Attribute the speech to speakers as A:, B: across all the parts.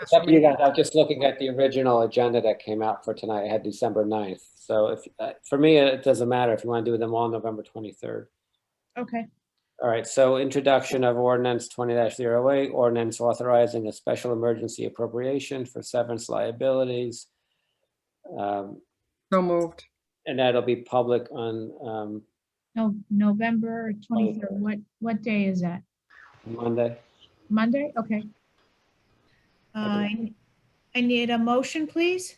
A: It's up to you guys. I'm just looking at the original agenda that came out for tonight. It had December 9th. So if, uh, for me, it doesn't matter if you want to do them all November 23rd.
B: Okay,
A: All right, so introduction of ordinance twenty 8 ordinance authorizing a special emergency appropriation for severance liabilities. Um,
C: So moved.
A: And that'll be public on um,
B: no, November twenty-third, what, what day is that?
A: Monday.
B: Monday? Okay. Uh, I n- I need a motion, please.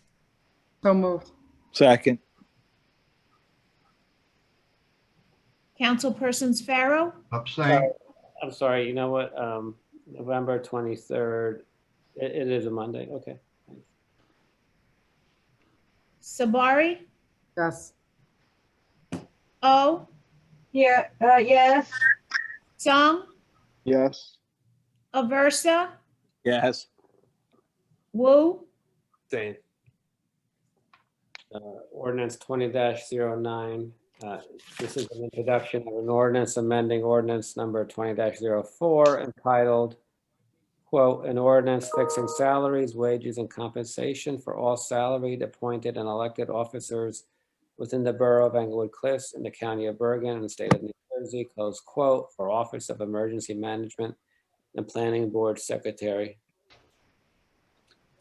C: So moved.
D: Second,
B: Councilpersons Pharaoh,
E: Abstain,
A: I'm sorry, you know what? um, November twenty-third, it is a Monday, okay.
B: Sabari,
C: Yes.
B: O,
F: Yeah, uh, yes,
B: Sung,
D: yes.
B: Aversa,
D: Yes.
B: Wu,
A: Same. Uh, Ordinance twenty 9 uh, this is an introduction of an ordinance amending ordinance number twenty 4 entitled, quote, "An ordinance fixing salaries, wages, and compensation for all salaried, appointed, and elected officers within the Borough of Englewood Cliffs in the County of Bergen and State of New Jersey," close quote, for Office of Emergency Management and Planning Board Secretary,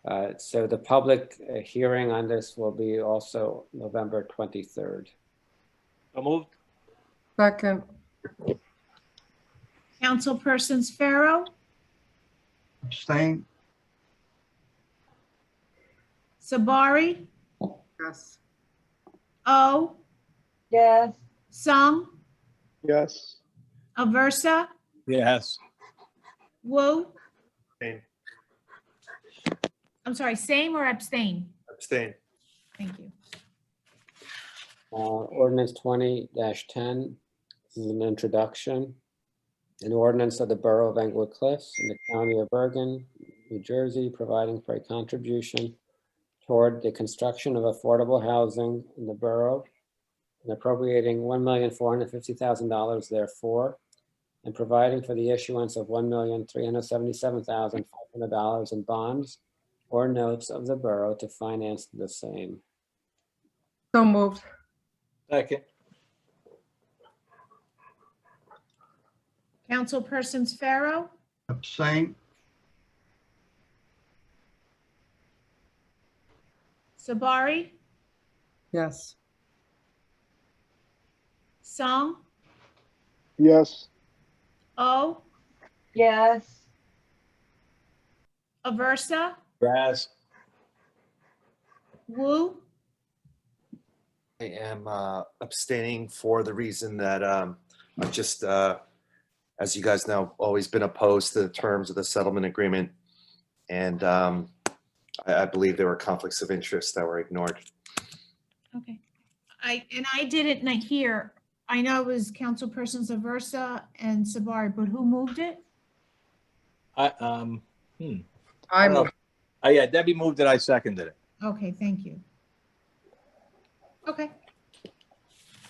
A: uh, So the public uh, hearing on this will be also November 23rd.
D: So moved?
C: Second.
B: Councilpersons Pharaoh,
E: abstain,
B: Sabari,
C: Yes.
B: O,
F: yes,
B: Sung,
D: Yes.
B: Aversa,
D: Yes.
B: Wu.
G: Same.
B: I'm sorry, same or abstain?
G: Abstain.
B: Thank you.
A: Uh, Ordinance 20-10, this is an introduction. An ordinance of the Borough of Englewood Cliffs in the County of Bergen, New Jersey, providing for a contribution toward the construction of affordable housing in the borough and appropriating $1,450,000 therefore, and providing for the issuance of $1,377,500 in bonds or notes of the borough to finance the same.
C: So moved.
D: Second,
B: Councilpersons Pharaoh,
E: abstain,
B: Sabari,
C: Yes.
B: Sung,
D: yes.
B: O,
F: yes,
B: Aversa,
D: Yes.
B: Wu,
G: I am uh, abstaining for the reason that um, I've just, uh, as you guys know, always been opposed to the terms of the settlement agreement. And um, I I believe there were conflicts of interest that were ignored.
B: Okay. I, and I didn't na- hear, I know it was councilpersons Aversa and Sabari, but who moved it?
D: I, um, hmm.
C: I
D: Oh.
C: moved.
D: Oh, yeah, Debbie moved it, I seconded it.
B: Okay, thank you. Okay.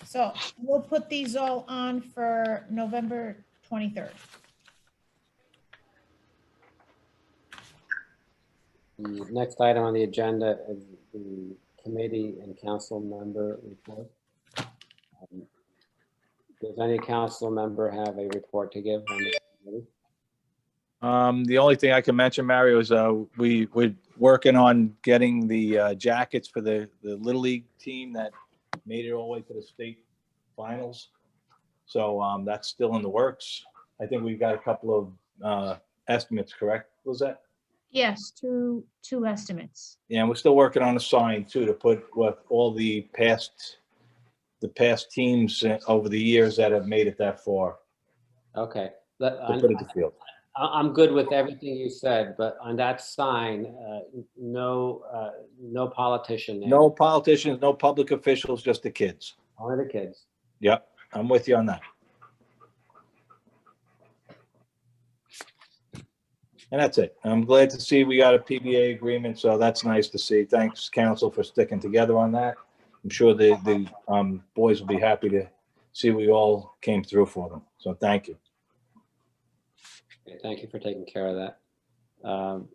B: So we'll put these all on for November 23rd.
A: The next item on the agenda is the committee and council member report. Um, Does any council member have a report to give? on this committee?
D: Um, the only thing I can mention, Mario, is, uh, we, we're working on getting the, uh, jackets for the, the Little League team that made it all the way to the state finals. So, um, that's still in the works. I think we've got a couple of, uh, estimates, correct, Lizette?
B: Yes, two, two estimates.
D: Yeah, and we're still working on a sign too, to put with all the past, the past teams uh, over the years that have made it that far.
A: Okay, but
D: to
A: on-
D: put it to field.
A: I- I'm good with everything you said, but on that sign, uh, n- no, uh, no politician name.
D: No politicians, no public officials, just the kids.
A: Only the kids.
D: Yep, I'm with you on that. And that's it. I'm glad to see we got a PBA agreement, so that's nice to see. Thanks, council, for sticking together on that. I'm sure the, the um, boys will be happy to see we all came through for them, so thank you.
A: Okay, Thank you for taking care of that. Um,